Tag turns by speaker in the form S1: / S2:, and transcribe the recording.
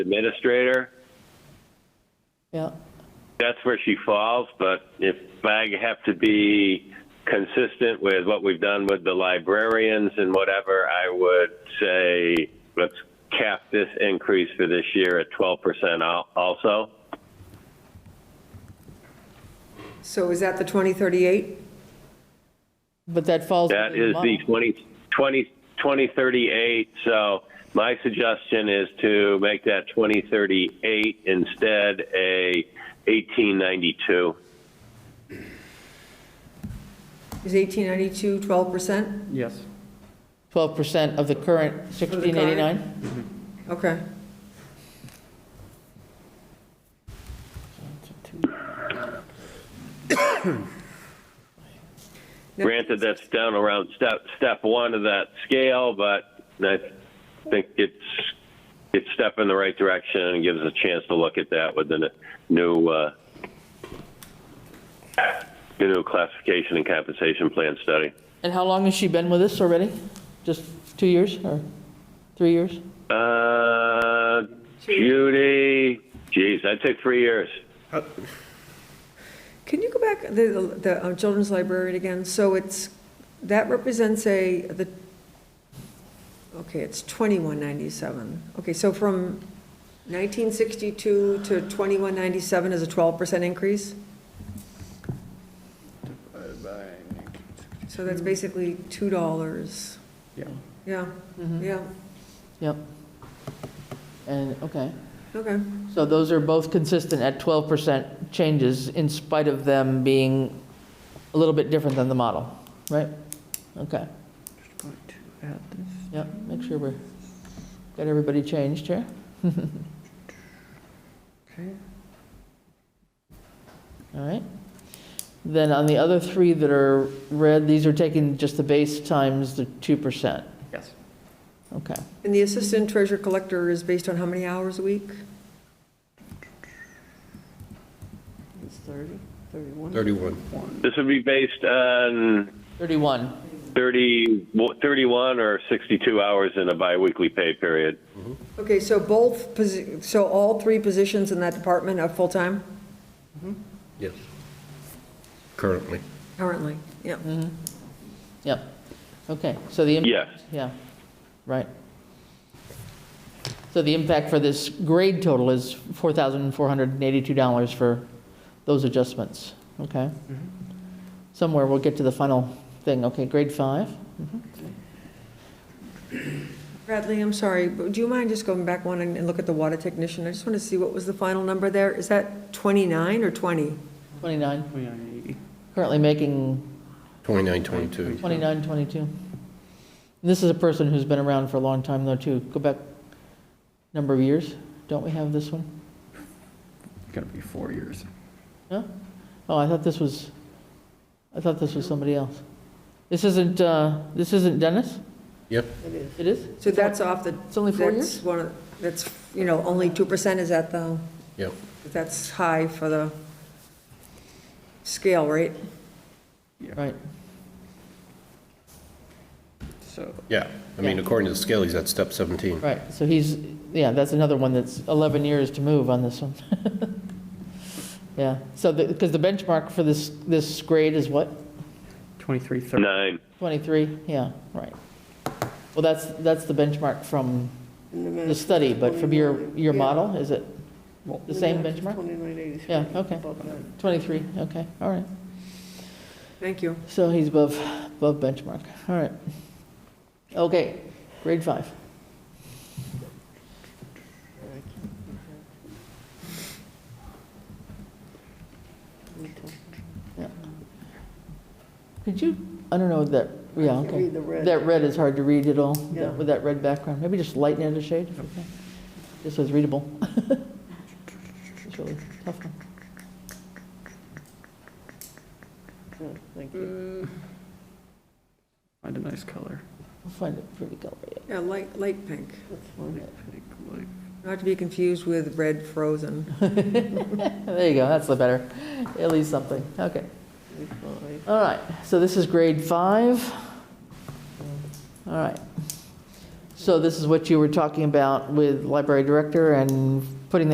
S1: administrator.
S2: Yeah,
S1: That's where she falls, but if I have to be consistent with what we've done with the librarians and whatever, I would say let's cap this increase for this year at 12% al- also.
S3: So is that the 2038?
S2: but that falls.
S1: That
S2: within
S1: is the
S2: month.
S1: 20, 20, 2038. So my suggestion is to make that 2038 instead a 1892.
S3: Is 1892 12%?
S4: Yes.
S2: 12% of the current 1689?
S3: Okay.
S1: Granted, that's down around step, step one of that scale, but I think it's, it's step in the right direction and gives us a chance to look at that with the n- new, uh, the new classification and compensation plan study.
S2: And how long has she been with us already? Just two years or three years?
S1: Uh, Judy, geez, I'd say three years.
S3: Can you go back, the, the uh, children's librarian again? So it's, that represents a, the, okay, it's 2197. Okay, so from 1962 to 2197 is a 12% increase? So that's basically $2.
S4: Yeah.
S3: Yeah, yeah,
S2: Yep. And, okay.
S3: okay.
S2: So those are both consistent at 12% changes in spite of them being a little bit different than the model, right? Okay, yep, make sure we're, got everybody changed here. All right. Then on the other three that are red, these are taking just the base times the 2%.
S4: Yes.
S2: Okay.
S3: And the assistant treasurer collector is based on how many hours a week?
S5: It's 30, 31.
S6: 31.
S1: This would be based on
S2: 31.
S1: 30, 31 or 62 hours in a biweekly pay period.
S3: Okay, so both, posi- so all three positions in that department are full-time
S6: Yes. Currently.
S3: currently? Yeah.
S2: Yep. Okay, so the. impact-
S1: Yes.
S2: Yeah, right. So the impact for this grade total is $4,482 for those adjustments, okay? Somewhere we'll get to the final thing, okay, grade five?
S3: Bradley, I'm sorry, but do you mind just going back one and and look at the water technician? I just want to see what was the final number there. Is that 29 or 20?
S2: 29,
S4: 2980.
S2: currently making
S6: 29, 22.
S2: 29, 22. This is a person who's been around for a long time, though, too. Go back number of years. Don't we have this one?
S4: Going to be four years.
S2: No? Oh, I thought this was, I thought this was somebody else. This isn't, uh, this isn't Dennis?
S6: Yep.
S2: It is?
S3: So that's off the.
S2: It's only four
S3: that's
S2: years?
S3: one of- That's, you know, only 2% is at the,
S6: Yep.
S3: that's high for the scale, right?
S2: Right.
S4: So
S6: Yeah. I mean, according to the scale, he's at step 17.
S2: Right, so he's, yeah, that's another one that's 11 years to move on this one. Yeah, so, because the benchmark for this, this grade is what?
S4: 2330.
S1: Nine.
S2: 23? Yeah, right. Well, that's, that's the benchmark from the study, but from your, your model, is it
S4: Well-
S2: the same benchmark?
S5: 2983.
S2: Yeah, okay.
S5: Above that.
S2: 23, okay, all right.
S3: Thank you.
S2: So he's above, above benchmark, all right. Okay, grade five. Yeah. Could you, I don't know, that, yeah,
S5: can't
S2: okay.
S5: read the red.
S2: That red is hard to read at all, that-
S5: Yeah.
S2: with that red background. Maybe just lighten it a shade, okay? Just so it's readable. It's really tough one.
S5: Good, Thank you.
S4: Find a nice color.
S2: I'll find it pretty color, yeah.
S3: Yeah, light, light pink,
S5: That's fine.
S4: Pink, like-
S3: not to be confused with red frozen.
S2: There you go, that's the better, at least something, okay.
S5: That's fine.
S2: All right, so this is grade five. All right. So this is what you were talking about with library director and putting that